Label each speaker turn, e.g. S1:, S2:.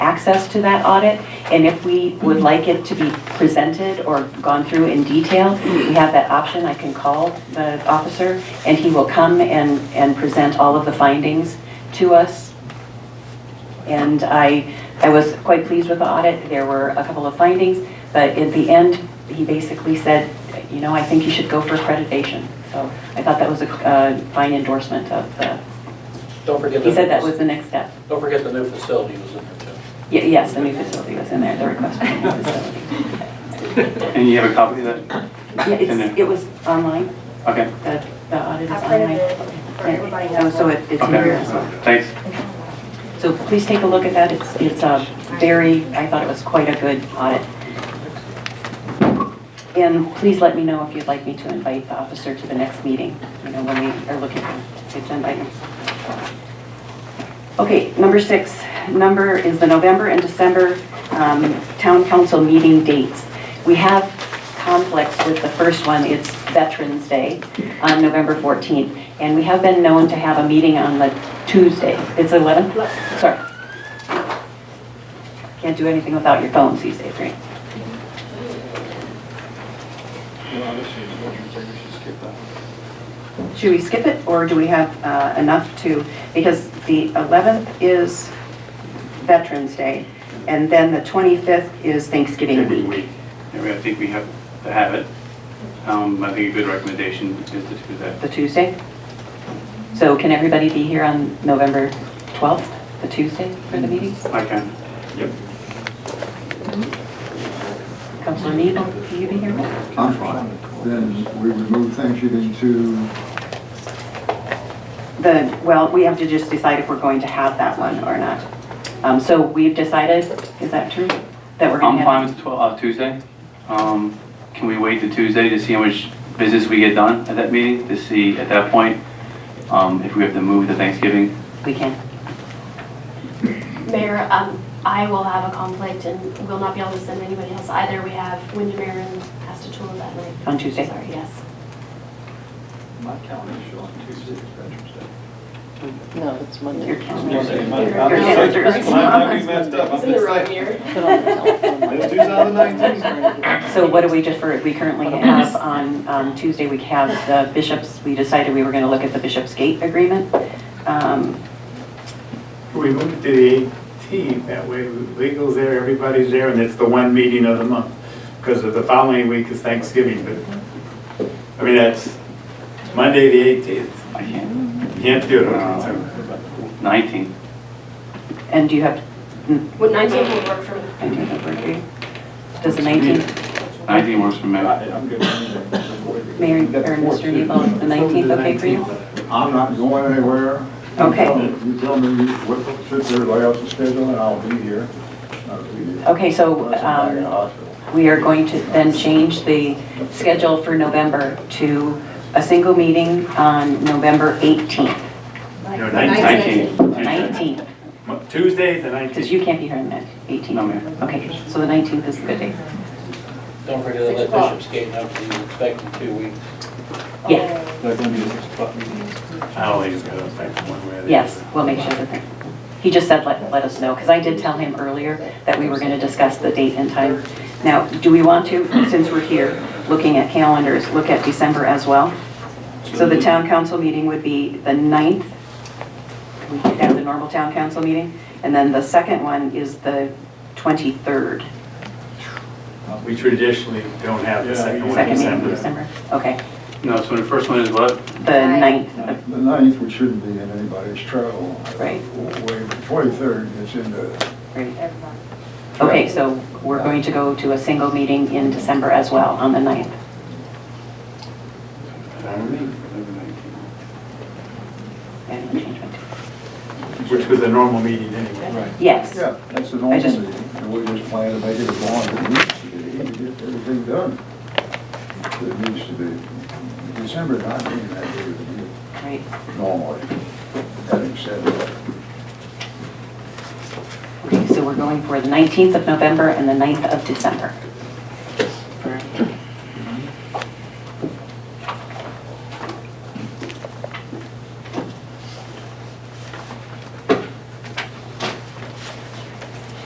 S1: access to that audit, and if we would like it to be presented or gone through in detail, we have that option, I can call the officer, and he will come and, and present all of the findings to us. And I, I was quite pleased with the audit, there were a couple of findings, but at the end, he basically said, you know, I think you should go for accreditation. So I thought that was a uh, fine endorsement of the,
S2: Don't forget.
S1: he
S2: the-
S1: said that was the next step.
S2: Don't forget the new facility was in there too.
S1: Ye- Yes, the new facility was in there, the request for the new facility.
S3: And you have a copy of that?
S1: Yeah, it's, it was online,
S3: Okay,
S1: the, the audit is
S4: I printed
S1: online.
S4: it for everybody.
S1: Oh, So it- it's in here as well.
S3: okay, thanks.
S1: So please take a look at that, it's, it's a very, I thought it was quite a good audit. And please let me know if you'd like me to invite the officer to the next meeting, you know, when we are looking for agenda items. Okay, number six, number is the November and December um, Town Council meeting dates. We have conflicts with the first one, it's Veterans Day on November 14th, and we have been known to have a meeting on the Tuesday. It's 11? Sorry. Can't do anything without your phones these days, right? Should we skip it, or do we have uh, enough to, because the 11th is Veterans Day, and then the 25th is Thanksgiving
S3: Every
S1: week.
S3: week. Yeah, we- I think we have to have it. Um, I think a good recommendation is to do that.
S1: The Tuesday? So can everybody be here on November 12th, the Tuesday for the meeting?
S3: I can. Yep.
S1: Councilor Neal, will you be here?
S5: I'm fine. Then we remove Thanksgiving to,
S1: The, well, we have to just decide if we're going to have that one or not. Um, So we've decided, is that true? That we're going
S3: I'm
S1: to
S3: fine
S1: have?
S3: with the 12, uh, Tuesday. Um, can we wait to Tuesday to see how much business we get done at that meeting? To see at that point, um, if we have to move to Thanksgiving?
S1: We can.
S6: Mayor, um, I will have a conflict and will not be able to send anybody else either. We have Windermere and Astatool that night.
S1: On Tuesday?
S6: Sorry, yes.
S7: My calendar is showing Tuesday as Veterans Day.
S8: No, it's
S1: Your
S8: Monday.
S1: calendar.
S7: My-
S6: Your
S7: I'm just-
S1: calendar is-
S7: I might be messed up. I'm
S6: It's in the
S7: just
S6: wrong
S7: like-
S6: year.
S8: Put on the telephone.
S7: Tuesday the 19th.
S1: So what do we defer, we currently have on um, Tuesday, we have the bishops, we decided we were going to look at the Bishop's Gate Agreement. Um,
S9: We moved to the 18th, that way legal's there, everybody's there, and it's the one meeting of the month. Because of the following week is Thanksgiving, but, I mean, that's Monday, the 18th.
S3: I can.
S9: You can't do it on the 18th.
S3: 19.
S1: And do you have,
S6: Would 19 will work for me.
S1: I do have birthday. Does the 19th,
S3: 19 works for me.
S7: I- I'm good with
S1: Mayor or
S7: anything.
S1: Mr. Nebo, is the 19th okay for you?
S5: I'm not going anywhere.
S1: Okay.
S5: You tell me what, sit there, lay out the schedule, and I'll be here. I'll be here.
S1: Okay, so
S5: Unless I'm back in the
S1: um,
S5: hospital.
S1: we are going to then change the schedule for November to a single meeting on November 18th,
S9: No,
S3: 19.
S1: 19th,
S9: Tuesday, the
S1: because
S9: 19th.
S1: you can't be here on the
S3: No,
S1: 18th.
S3: ma'am.
S1: Okay, so the 19th is a good day.
S2: Don't forget to let Bishop's Gate know that you expect in two weeks.
S1: Yeah,
S7: They're gonna be a six o'clock meeting.
S9: I don't think it's going to affect one way or the other.
S1: yes, we'll make sure that, he just said let, let us know, because I did tell him earlier that we were going to discuss the date and time. Now, do we want to, since we're here, looking at calendars, look at December as well? So the town council meeting would be the 9th. We could have the normal town council meeting, and then the second one is the 23rd,
S9: We traditionally don't have the
S7: Yeah,
S9: second one in
S1: second meeting in
S9: December.
S1: December. Okay,
S3: No, so the first one is what?
S1: the 9th,
S5: The ninth, we shouldn't be in anybody's travel.
S1: Right.
S5: Way, twenty-third is in the,
S1: right? Okay, so we're going to go to a single meeting in December as well, on the 9th. I didn't change my tune.
S9: Which was a normal meeting anyway.
S7: Right.
S1: Yes,
S5: yeah, that's the normal
S1: just-
S5: meeting. And we just plan to make it as long as it needs to be, to get everything done. It needs to be. December nineteenth, that day would be
S1: right,
S5: normally, having said that.
S1: okay, so we're going for the 19th of November and the 9th of December.